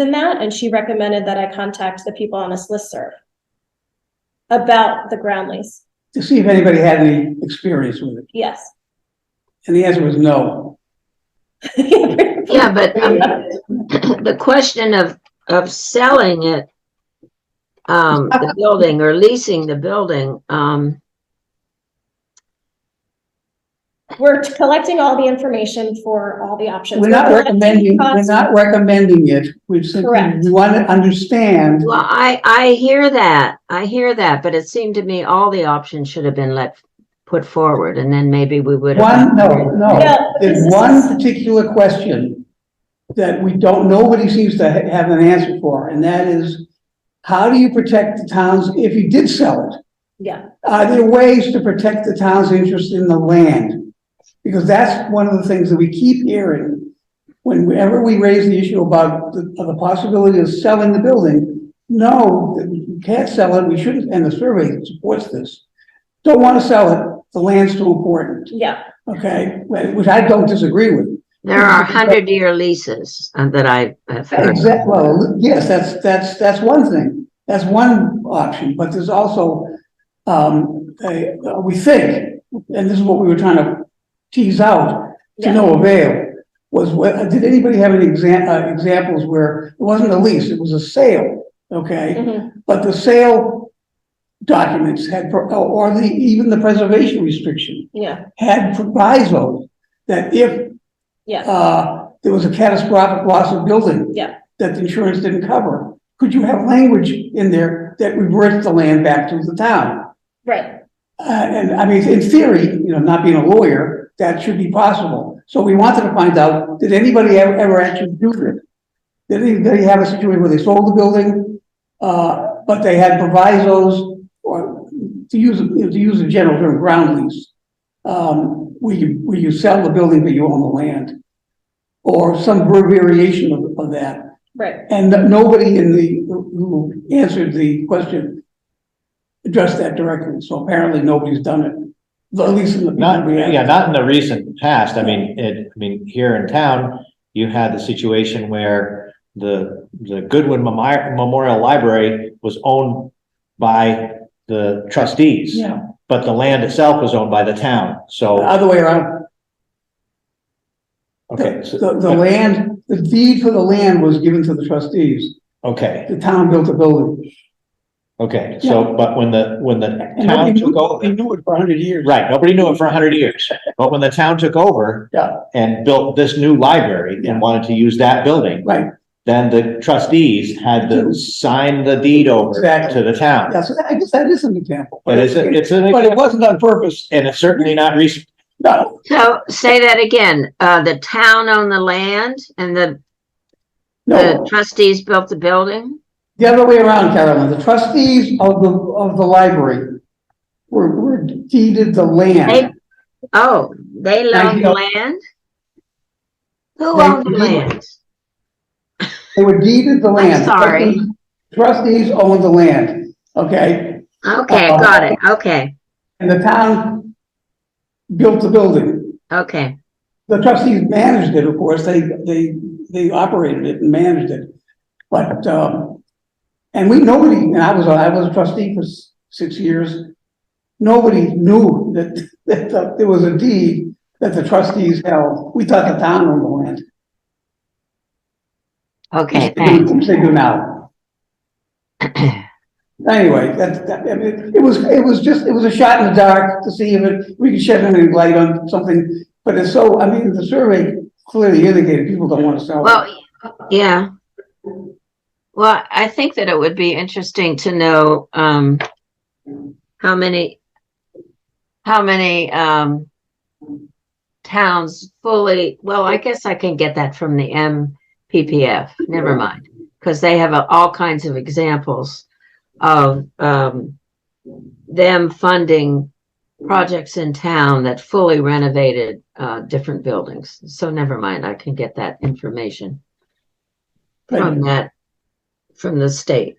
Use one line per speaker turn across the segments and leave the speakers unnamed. than that, and she recommended that I contact the people on this listserv about the ground lease.
to see if anybody had any experience with it.
Yes.
And the answer was no.
Yeah, but um, the question of, of selling it, um, the building or leasing the building, um,
We're collecting all the information for all the options.
We're not
We're collecting
recommending, we're
costs.
not recommending it. We simply
Correct.
want to understand.
well, I, I hear that. I hear that, but it seemed to me all the options should have been let, put forward and then maybe we would have.
One, no,
No,
no.
this
There's
is-
one particular question that we don't, nobody seems to ha- have an answer for, and that is, how do you protect the towns if you did sell it?
Yeah,
Are there ways to protect the town's interest in the land? Because that's one of the things that we keep hearing. Whenever we raise the issue about the, of the possibility of selling the building, no, you can't sell it, we shouldn't, and the survey supports this. Don't want to sell it, the land's too important,
yeah,
okay, which I don't disagree with.
There are hundred year leases uh, that I have heard.
Exactly, well, yes, that's, that's, that's one thing, that's one option, but there's also, um, a- we think, and this is what we were trying to tease out, to
Yeah.
no avail, was, whe- did anybody have any exam, uh, examples where it wasn't a lease, it was a sale, okay?
mhm,
But the sale documents had, pro- or the, even the preservation restriction
yeah,
had provisos that if
yeah,
uh, there was a catastrophic loss of building.
Yeah.
That the insurance didn't cover. Could you have language in there that reverts the land back to the town?
right,
Uh, and I mean, in theory, you know, not being a lawyer, that should be possible. So we wanted to find out, did anybody ever, ever actually do this? Did anybody have a situation where they sold the building, uh, but they had provisos or to use, you know, to use a general term, ground lease? Um, where you, where you sell the building, but you own the land? Or some variation of, of that.
right,
And nobody in the, who answered the question addressed that directly, so apparently nobody's done it, at least in the.
Not, yeah, not in the recent past. I mean, it, I mean, here in town, you had the situation where the, the Goodwin Memi- Memorial Library was owned by the trustees,
Yeah, Uh,
but the land itself was owned by the town.
the
So,
other way around,
okay, so-
the, the land, the deed for the land was given to the trustees,
okay,
the town built the building.
okay. So, but when the, when the
And
town
nobody
took
knew-
over.
They knew it for a hundred years.
Right, nobody knew it for a hundred years, but when the town took over.
Yeah.
And built this new library
Yeah.
and wanted to use that building.
Right.
Then the trustees had to sign the deed over
Exactly.
to the town.
Yeah, so that- I guess that is an example.
But it's, a- it's,
But
an-
it wasn't on purpose,
and it's certainly not recent,
no,
So say that again, uh, the town owned the land and the the
no,
trustees built the building?
the other way around, Carolyn, the trustees of the, of the library were, were deeded the land.
They- Oh, they loaned the
you.
land? Who
They
owned the
do.
land?
They were deeded the land.
sorry.
Trustees owned the land, okay?
Okay, got it. Okay,
And the town built the building.
okay.
The trustees managed it, of course, they, they, they operated it and managed it. But, um, and we, nobody, and I was, I was a trustee for s- six years. Nobody knew that, that there was a deed that the trustees held. We thought the town owned the land.
Okay, thanks.
They do now. Anyway, that, that, I mean, it was, it was just, it was a shot in the dark to see if it, we could shed any light on something. But it's so, I mean, the survey clearly indicated people don't want to sell it.
Well, yeah. Well, I think that it would be interesting to know, um, how many, how many, um, towns fully, well, I guess I can get that from the MPPF, never mind. Because they have uh, all kinds of examples of, um, them funding projects in town that fully renovated, uh, different buildings. So never mind, I can get that information from
Right.
that, from the state.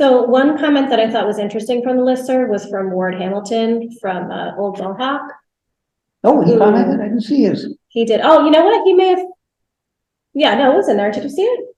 So one comment that I thought was interesting from the listserv was from Ward Hamilton from uh, Old Mohawk.
Oh, he commented, I didn't see his.
He did, oh, you know what, he may have, yeah, no, it was in there, did you see it?